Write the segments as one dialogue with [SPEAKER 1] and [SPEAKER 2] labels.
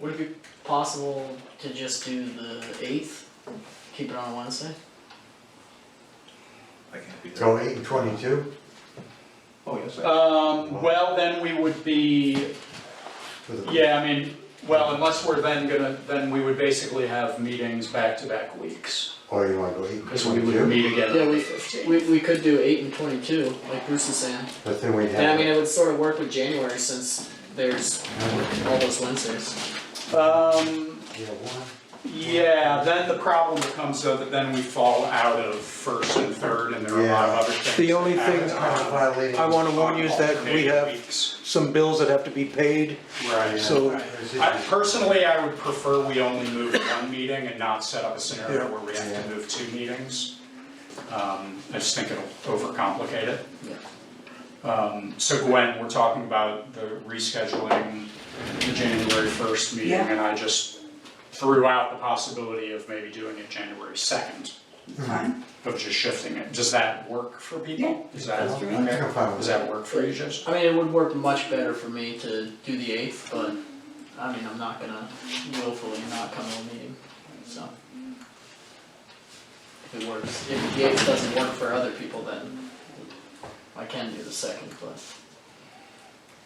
[SPEAKER 1] Would it be possible to just do the eighth, keep it on a Wednesday?
[SPEAKER 2] I can't be there.
[SPEAKER 3] Go eight and twenty-two,
[SPEAKER 2] Oh, yes, I,
[SPEAKER 4] Um, well, then we would be,
[SPEAKER 3] for the-
[SPEAKER 4] yeah, I mean, well, unless we're then gonna, then we would basically have meetings back-to-back weeks,
[SPEAKER 3] or oh, you wanna go eight and
[SPEAKER 4] because we would
[SPEAKER 3] twenty-two,
[SPEAKER 4] meet again
[SPEAKER 1] Yeah,
[SPEAKER 4] on the
[SPEAKER 1] we,
[SPEAKER 4] fifteenth.
[SPEAKER 1] we, we could do eight and twenty-two, like Bruce is saying.
[SPEAKER 3] but then we'd
[SPEAKER 1] And I mean,
[SPEAKER 3] have,
[SPEAKER 1] it would sort of work with January since there's all those Wednesdays.
[SPEAKER 4] Um,
[SPEAKER 3] yeah, one,
[SPEAKER 4] yeah, then the problem becomes though that then we fall out of first and third, and there are a lot of other things.
[SPEAKER 5] The only
[SPEAKER 4] that happen
[SPEAKER 5] thing-
[SPEAKER 3] kind of
[SPEAKER 4] on-
[SPEAKER 3] violating.
[SPEAKER 5] I wanna warn you is that we have
[SPEAKER 4] Weeks.
[SPEAKER 5] some bills that have to be paid,
[SPEAKER 4] Right.
[SPEAKER 5] so-
[SPEAKER 4] I, personally, I would prefer we only move one meeting and not set up a scenario where we have to move two meetings. Um, I just think it'll overcomplicate it. Um, so Gwen, we're talking about the rescheduling the January first meeting,
[SPEAKER 6] Yeah.
[SPEAKER 4] and I just threw out the possibility of maybe doing it January second,
[SPEAKER 6] Fine,
[SPEAKER 4] of just shifting it. Does that work for people? Is that,
[SPEAKER 6] That's
[SPEAKER 3] fine
[SPEAKER 4] okay?
[SPEAKER 3] with
[SPEAKER 4] Does that work for you, Jess?
[SPEAKER 1] I mean, it would work much better for me to do the eighth, but I mean, I'm not gonna willfully not come to a meeting, so. If it works, if the eighth doesn't work for other people, then I can do the second, but.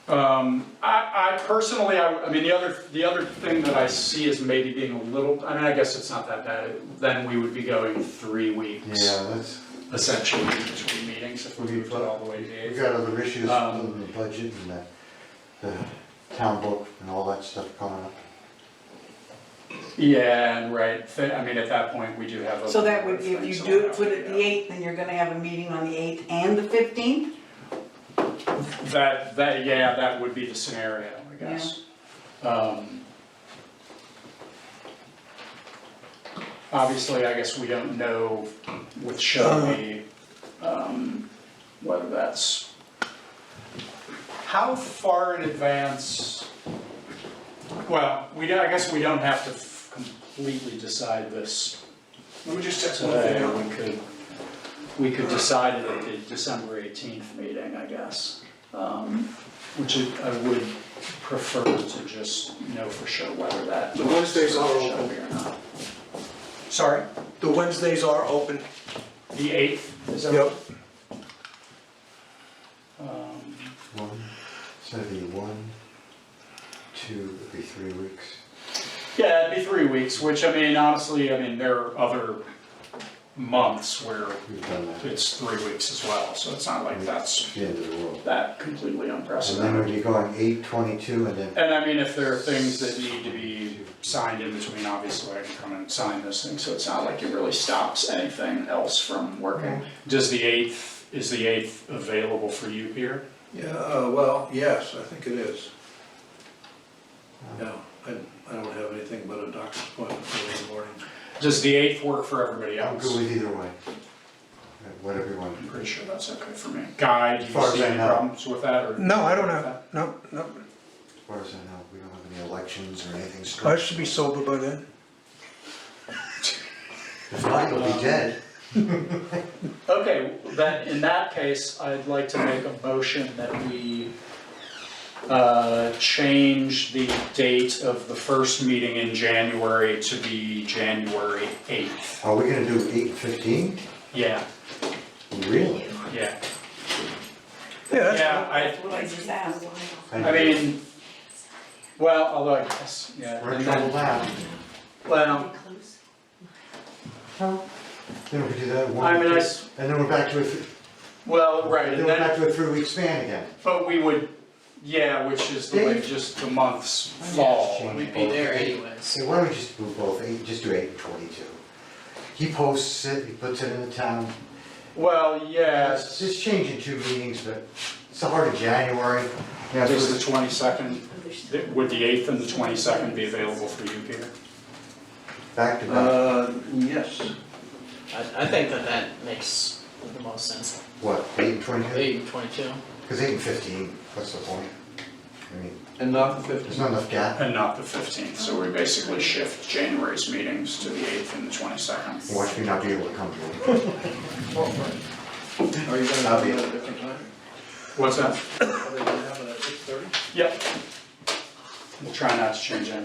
[SPEAKER 4] Um, I, I personally, I, I mean, the other, the other thing that I see is maybe being a little, I mean, I guess it's not that bad, then we would be going three weeks,
[SPEAKER 3] Yeah, that's,
[SPEAKER 4] essentially, between meetings, if we moved it all the way to
[SPEAKER 3] we
[SPEAKER 4] eight.
[SPEAKER 3] got other issues
[SPEAKER 4] Um,
[SPEAKER 3] other than the budget and the, the town book and all that stuff coming up.
[SPEAKER 4] Yeah, and right, thi- I mean, at that point, we do have a.
[SPEAKER 6] so that would, if you
[SPEAKER 4] things
[SPEAKER 6] do,
[SPEAKER 4] allowed,
[SPEAKER 6] put it the
[SPEAKER 4] yeah.
[SPEAKER 6] eighth, then you're gonna have a meeting on the eighth and the fifteenth?
[SPEAKER 4] That, that, yeah, that would be the scenario, I guess. Um, Obviously, I guess we don't know with Shelby, um, whether that's. How far in advance? Well, we, don't- I guess we don't have to f- completely decide this
[SPEAKER 2] let me just text one thing
[SPEAKER 4] today.
[SPEAKER 2] out.
[SPEAKER 4] Uh, We could, we could decide it at the December eighteenth meeting, I guess. Um, Which I I would prefer to just know for sure whether that.
[SPEAKER 5] The Wednesdays are
[SPEAKER 4] works for
[SPEAKER 5] open.
[SPEAKER 4] Shelby or not. Sorry,
[SPEAKER 5] the Wednesdays are open.
[SPEAKER 4] the eighth is that?
[SPEAKER 5] Yep.
[SPEAKER 4] Um,
[SPEAKER 3] One, so it'd be one, two, it'd be three weeks.
[SPEAKER 4] Yeah, it'd be three weeks, which I mean, honestly, I mean, there are other months where
[SPEAKER 3] We've done that, it's
[SPEAKER 4] it's three weeks as well, so it's not like
[SPEAKER 5] Mm.
[SPEAKER 4] that's
[SPEAKER 3] the end of the world.
[SPEAKER 4] that completely
[SPEAKER 3] And then we'd
[SPEAKER 4] unprecedented.
[SPEAKER 3] be going eight, twenty-two, and then
[SPEAKER 4] And I mean, if there are things that need to be signed in between, obviously I can come and sign those things, so it's not like it really stops anything else from working. Does the eighth, is the eighth available for you, Peter?
[SPEAKER 7] Yeah, uh, well, yes, I think it is. Yeah, I, I don't have anything but a doctor's appointment for the morning.
[SPEAKER 4] Does the eighth work for everybody
[SPEAKER 3] I'm
[SPEAKER 4] else?
[SPEAKER 3] good with either way. Whatever you want.
[SPEAKER 4] I'm pretty sure that's okay for me. Guy, do
[SPEAKER 3] As
[SPEAKER 4] you
[SPEAKER 3] far as
[SPEAKER 4] see
[SPEAKER 3] I
[SPEAKER 4] any
[SPEAKER 3] know.
[SPEAKER 4] problems with that or?
[SPEAKER 5] No, I don't have, no, no,
[SPEAKER 3] As far as I know, we don't have any elections or anything.
[SPEAKER 5] I
[SPEAKER 3] struck.
[SPEAKER 5] should be sober by then.
[SPEAKER 3] If not, you'll be dead.
[SPEAKER 4] Okay, then in that case, I'd like to make a motion that we uh, change the date of the first meeting in January to be January 8th.
[SPEAKER 3] Are we gonna do eight and fifteen?
[SPEAKER 4] Yeah,
[SPEAKER 3] Really?
[SPEAKER 4] yeah.
[SPEAKER 5] Yeah, that's,
[SPEAKER 4] Yeah,
[SPEAKER 6] What I just asked.
[SPEAKER 4] I, I mean, well, although I guess, yeah.
[SPEAKER 3] We're in
[SPEAKER 4] and
[SPEAKER 3] trouble
[SPEAKER 4] then-
[SPEAKER 3] now.
[SPEAKER 4] Well,
[SPEAKER 3] Then we do that one,
[SPEAKER 4] I mean, I,
[SPEAKER 3] and
[SPEAKER 4] s-
[SPEAKER 3] then we're back to a, th-
[SPEAKER 4] well, right,
[SPEAKER 3] then
[SPEAKER 4] and
[SPEAKER 3] we're back
[SPEAKER 4] then,
[SPEAKER 3] to a three-week span again.
[SPEAKER 4] but we would, yeah, which is the way
[SPEAKER 3] Dave?
[SPEAKER 4] just the months
[SPEAKER 3] just
[SPEAKER 4] fall.
[SPEAKER 3] changing.
[SPEAKER 1] We'd be there anyways.
[SPEAKER 3] So why don't we just do both, eight, just do eight and twenty-two? He posts it, he puts it in the town.
[SPEAKER 4] Well, yeah.
[SPEAKER 3] It's just changing two meetings, but it's the heart of January. Yeah, so
[SPEAKER 4] Is the
[SPEAKER 3] it's-
[SPEAKER 4] twenty-second, would the eighth and the twenty-second be available for you, Peter?
[SPEAKER 3] back to back,
[SPEAKER 7] Uh, yes,
[SPEAKER 1] I, I think that that makes the most sense.
[SPEAKER 3] what, eight and twenty-two?
[SPEAKER 1] Eight and twenty-two.
[SPEAKER 3] Because eight and fifteen, what's the point? I mean,
[SPEAKER 7] and not the
[SPEAKER 3] there's
[SPEAKER 7] fifteenth.
[SPEAKER 3] not enough gap.
[SPEAKER 4] And not the fifteenth, so we basically shift January's meetings to the eighth and the twenty-second.
[SPEAKER 3] Watch me not be able to come to it.
[SPEAKER 7] Are you gonna have it at a different time?
[SPEAKER 4] What's that?
[SPEAKER 7] Are they gonna have it at six thirty?
[SPEAKER 4] Yep. We'll try not to change anything.